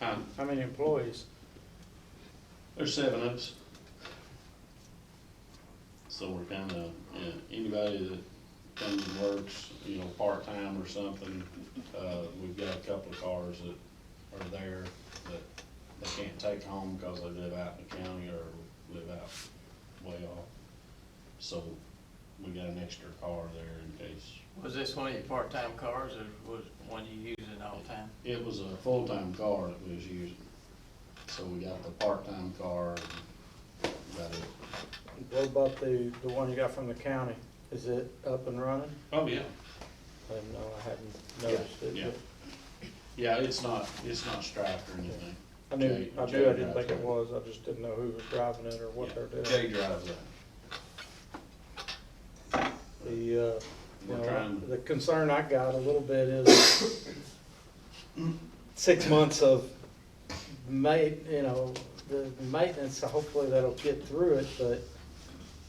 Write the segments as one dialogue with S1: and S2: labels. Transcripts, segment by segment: S1: Um,
S2: How many employees?
S1: There's seven of us. So we're kind of, yeah, anybody that comes and works, you know, part-time or something, uh, we've got a couple of cars that are there that they can't take home because they live out in the county or live out way off. So we got an extra car there in case.
S3: Was this one of your part-time cars or was one you using all the time?
S1: It was a full-time car that we was using. So we got the part-time car, and got it.
S2: What about the, the one you got from the county? Is it up and running?
S1: Oh, yeah.
S2: I didn't know, I hadn't noticed it.
S1: Yeah. Yeah, it's not, it's not striped or anything.
S2: but I knew,
S1: Jay-
S2: I
S1: Jay
S2: knew, I didn't
S1: drives
S2: think it
S1: that.
S2: was, I just didn't know who was driving it or what
S1: Yeah.
S2: they're doing.
S1: Jay drives that.
S2: The, uh, you
S1: We're
S2: know,
S1: trying-
S2: the concern I got a little bit is six months of ma, you know, the maintenance, hopefully that'll get through it, but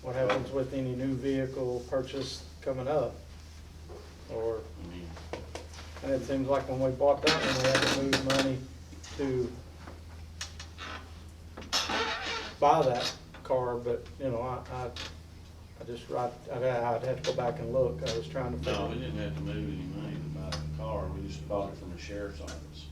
S2: what happens with any new vehicle purchase coming up? Or
S1: I mean,
S2: And it seems like when we bought that one, we had to move money to buy that car, but, you know, I, I, I just, I'd, I'd I'd have to go back and look, I was trying to
S1: No, we
S2: figure.
S1: didn't have to move any money to buy the car. We just bought it from the sheriff's office.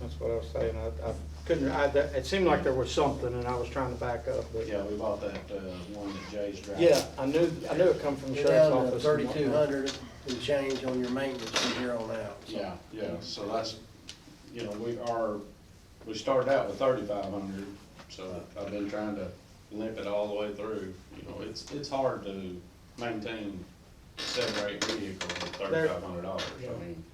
S2: That's what I was saying, I, I couldn't, I, that- it seemed like there was something, and I was trying to back up, but.
S1: Yeah, we bought that, uh, one that Jay's driving.
S2: Yeah, I knew, I knew it come from the
S4: You're
S2: sheriff's
S4: down to
S2: office.
S4: thirty-two hundred and change on your maintenance from here on out. so.
S1: Yeah, yeah, so that's, you know, we are, we started out with thirty-five hundred, so I've been trying to limp it all the way through. You know, it's, it's hard to maintain seven or eight vehicles with
S2: There-
S1: thirty-five hundred dollars, I mean.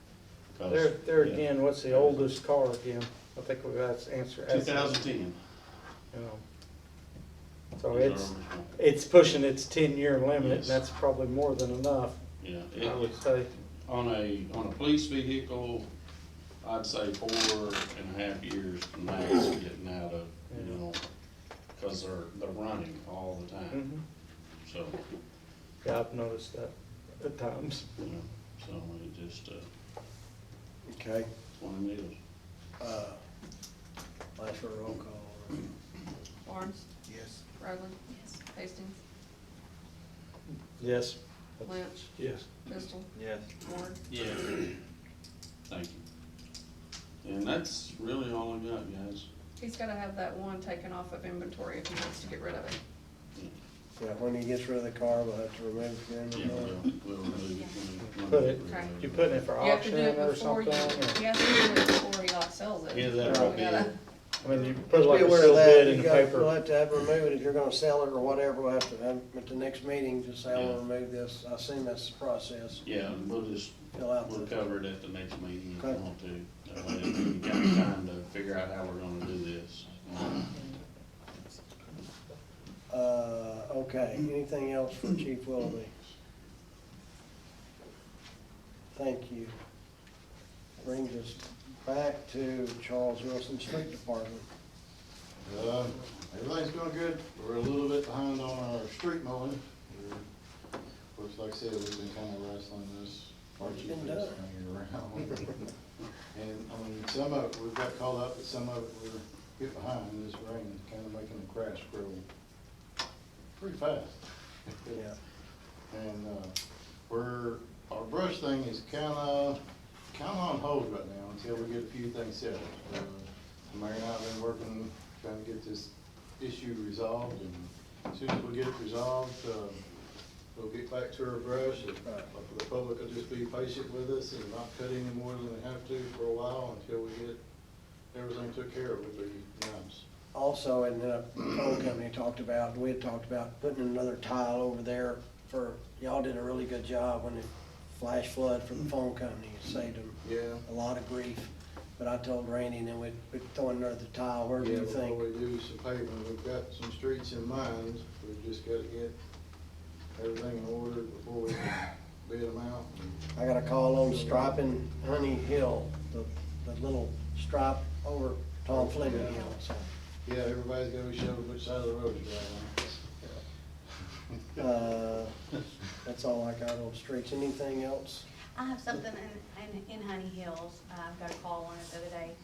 S1: 'cause-
S2: There, there
S1: yeah.
S2: again, what's the oldest car again? I think we've got to answer.
S1: Two thousand ten.
S2: you know. So it's, it's pushing its ten-year limit, and
S1: Yes.
S2: that's probably more than enough,
S1: Yeah,
S2: I
S1: it was,
S2: would say.
S1: on a, on a police vehicle, I'd say four and a half years max getting out of, you know, cause they're, they're running all the time,
S2: Mhm.
S1: so,
S2: Yeah, I've noticed that at times.
S1: you know, so it just, uh,
S4: Okay,
S1: it's one of them deals.
S4: uh, last for a roll call.
S5: Barnes,
S4: Yes.
S5: Rowland. Yes. Hastings,
S2: Yes.
S5: Lynch,
S2: Yes.
S5: Pistol,
S3: Yes.
S5: Ward,
S3: Yeah.
S1: Thank you. And that's really all I got, guys.
S5: he's gotta have that one taken off of inventory if he wants to get rid of it.
S4: Yeah, when he gets rid of the car, we'll have to remove it then.
S1: Yeah, we'll, we'll move it. when- when
S2: Put it-
S1: we're ready.
S2: You putting it for
S5: You have to
S2: auction
S5: do it
S2: or something?
S5: before you,
S2: or-
S5: he has to do it before he like sells it.
S1: Either that or I'll
S5: We
S1: be-
S5: gotta-
S2: I mean, you put like
S4: Be
S2: a
S4: aware of
S2: sealed
S4: that,
S2: bid in
S4: you
S2: the
S4: got, we'll
S2: paper.
S4: have to have remove it if you're gonna sell it or whatever, we'll have to, have- at the next meeting, just say, I wanna
S1: Yeah.
S4: remove this, I assume that's the process.
S1: Yeah, we'll just
S4: Fill out
S1: We'll
S4: the,
S1: cover it at the next meeting if we
S4: Okay.
S1: want to. That way it'll give you kind of time to figure out how we're gonna do this.
S4: uh, okay, anything else for Chief Willoughby? Thank you. Brings us back to Charles Wilson Street Department.
S6: Uh, everything's going good. We're a little bit behind on our street mowing. We're- Of course, like I said, we've been kind of wrestling this.
S4: What's
S6: Archie
S4: been
S6: thing
S4: done?
S6: around. And, I mean, some of it, we've got caught up, but some of it we're a bit behind. This rain is kind of making the grass grow pretty fast.
S4: Yeah,
S6: And, uh, we're, our brush thing is kinda, kinda on hold right now until we get a few things settled. Uh, Mary and I have been working, trying to get this issue resolved, and as soon as we get it resolved, uh, we'll get back to our brush. and
S4: Right.
S6: The public will just be patient with us and not cut any more than they have to for a while until we get everything took care of, it'll be nice.
S4: also, and the phone company talked about, we had talked about putting another tile over there for, y'all did a really good job when the flash flood for the phone company, It saved them
S6: Yeah.
S4: a lot of grief. But I told Randy, and then we'd, we'd throw another tile, where do
S6: Yeah,
S4: you think?
S6: Before we do some paving, we've got some streets in mind, we've just gotta get everything in order before we bid them out.
S4: I got a call on striping Honey Hill, the, the little stripe over Tom Fleming Hill, so.
S6: Yeah, everybody's gotta be showing which side of the road you're on.
S4: Uh, that's all I got on streets, anything else?
S7: uh, I have something in, in, in Honey Hills, I got a call on it the other day,